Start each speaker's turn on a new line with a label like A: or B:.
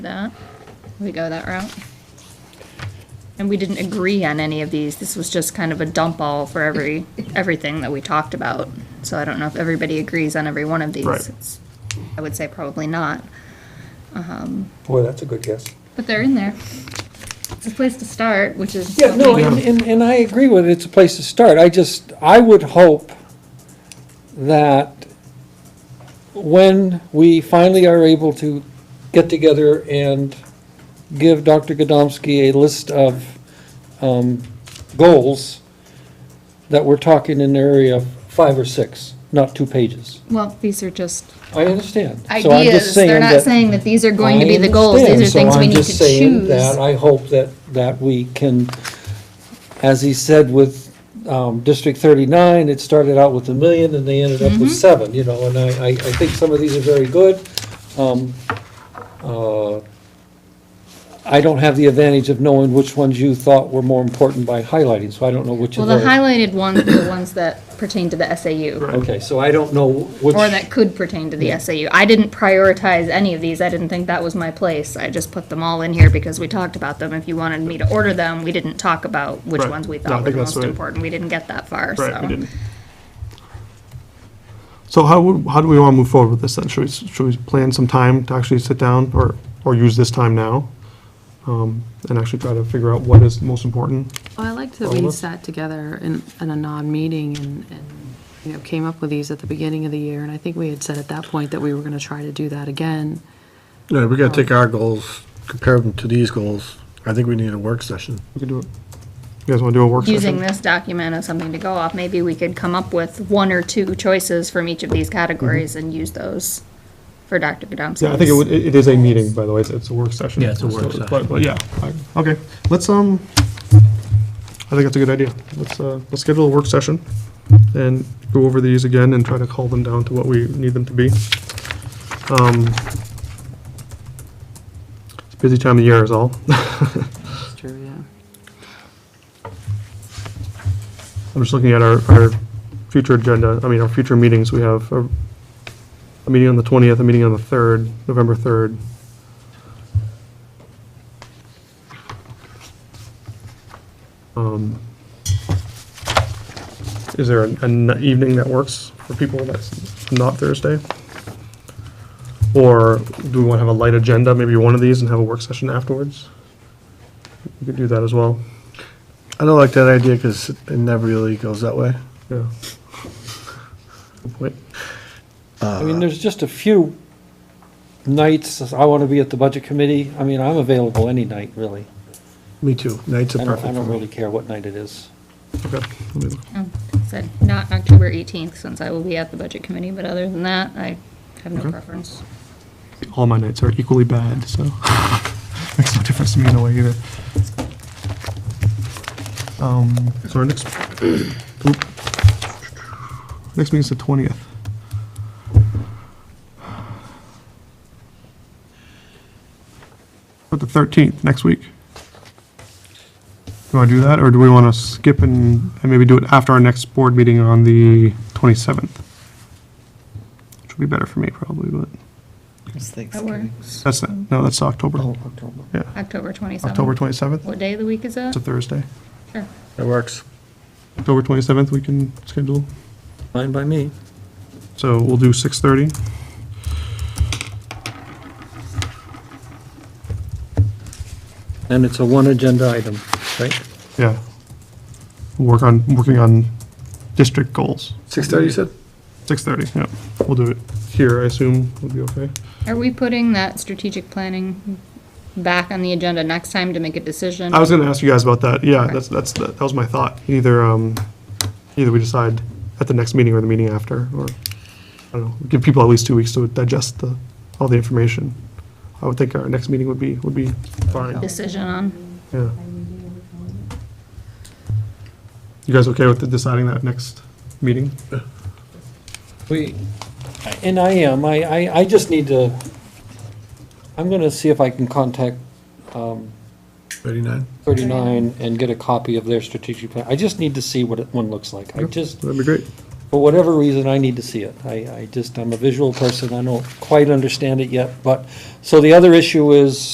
A: that. We go that route. And we didn't agree on any of these. This was just kind of a dump all for every, everything that we talked about. So I don't know if everybody agrees on every one of these.
B: Right.
A: It's- I would say probably not,
C: Boy, that's a good guess.
A: but they're in there. It's a place to start, which is.
C: Yeah, no, and, and, and I agree with it, it's a place to start, I just, I would hope that when we finally are able to get together and give Dr. Godomsky a list of, um, goals, that we're talking in the area of five or six, not two pages.
A: Well, these are just
C: I understand. So I'm just
A: ideas. They're not
C: that-
A: saying that these are going to be
C: I
A: the goals. These
C: understand,
A: are things
C: so
A: we
C: I'm
A: need
C: just
A: to
C: saying
A: choose.
C: that I hope that, that we can, as he said with um, District 39, it started out with a million and they ended up
A: Mm-hmm.
C: with seven, you know, and I, I I think some of these are very good. Um, uh, I don't have the advantage of knowing which ones you thought were more important by highlighting, so I don't know which
A: Well,
C: of
A: the
C: those.
A: highlighted ones are the ones that pertain to the SAU.
C: Okay, so I don't know which.
A: Or that could pertain to the SAU. I didn't prioritize any of these. I didn't think that was my place. I just put them all in here because we talked about them. If you wanted me to order them, we didn't talk about which
B: Right.
A: ones we
B: No, I
A: thought were
B: think
A: the most
B: that's the way-
A: important. We didn't get that far, so.
B: Right, we didn't. So how, would- how do we want to move forward with this then? Should we, s- should we plan some time to actually sit down or, or use this time now? um, And actually try to figure out what is most important?
D: Well, Oh, I liked that
B: All of
D: we
B: us?
D: sat together in, in a non-meeting and, and, you know, came up with these at the beginning of the year, and I think we had said at that point that we were gonna try to do that again.
E: Yeah, we
C: Oh.
E: gotta take our goals, compare them to these goals. I think we need a work session.
B: We could do it. You guys want to do a work session?
A: Using this document as something to go off, maybe we could come up with one or two choices from each of these categories and use those for Dr. Godomsky's.
B: Mm-hmm. Yeah, I think it would, it it is a meeting, by the way. It's, it's a work session.
E: Yeah, it's a work
B: So,
E: session.
B: But, but yeah, I- okay. Let's, um, I think that's a good idea. Let's, uh, let's schedule a work session and go over these again and try to call them down to what we need them to be. Um, It's a busy time of year is all.
D: It's true, yeah.
B: I'm just looking at our, our future agenda, I mean, our future meetings, we have a, a meeting on the twentieth, a meeting on the third, November third. Um, Is there an, an evening that works for people that's not Thursday? Or do we want to have a light agenda, maybe one of these and have a work session afterwards? We could do that as well,
E: I don't like that idea because it never really goes that way.
B: yeah. Good point.
C: I mean, there's just a few nights, I want to be at the budget committee, I mean, I'm available any night, really.
E: Me too. Nights
C: I
E: are
C: don't, I
E: perfect for
C: don't really
E: me.
C: care what night it is.
B: Okay, let me look.
A: Um, Said, not October eighteenth, since I will be at the budget committee, but other than that, I have no
B: Okay.
A: preference.
B: all my nights are equally bad, so makes no difference to me in a way either. Um, so our next, oop. next meeting's the twentieth. But the thirteenth, next week. Do I do that, or do we want to skip and, and maybe do it after our next board meeting on the twenty-seventh? Which would be better for me probably, but.
A: That works.
B: That's, not- no, that's October, yeah,
A: October twenty-seventh.
B: October 27th,
A: What day of the week is that?
B: it's a Thursday.
A: Sure.
E: It works.
B: October 27th, we can schedule,
C: Fine by me.
B: so we'll do 6:30.
C: And it's a one agenda item, right?
B: Yeah. We'll Work on, working on district goals,
E: Six thirty, you said?
B: 6:30, yeah, we'll do it here, I assume, would be okay.
A: Are we putting that strategic planning back on the agenda next time to make a decision?
B: I was gonna ask you guys about that, yeah,
A: Okay.
B: that's, that's, that was my thought, either, um, either we decide at the next meeting or the meeting after, or, I don't know, give people at least two weeks to digest the, all the information. I would think our next meeting would be, would be fine,
A: Decision on,
B: yeah. You guys okay with the- deciding that next meeting?
C: We, and I am, I, I, I just need to, I'm going to see if I can contact um,
E: Thirty-nine.
C: 39 and get a copy of their strategic plan. I just need to see what it- one looks like. I just,
B: That'd be great.
C: for whatever reason, I need to see it. I, I just, I'm a visual person, I don't quite understand it yet, but, so the other issue is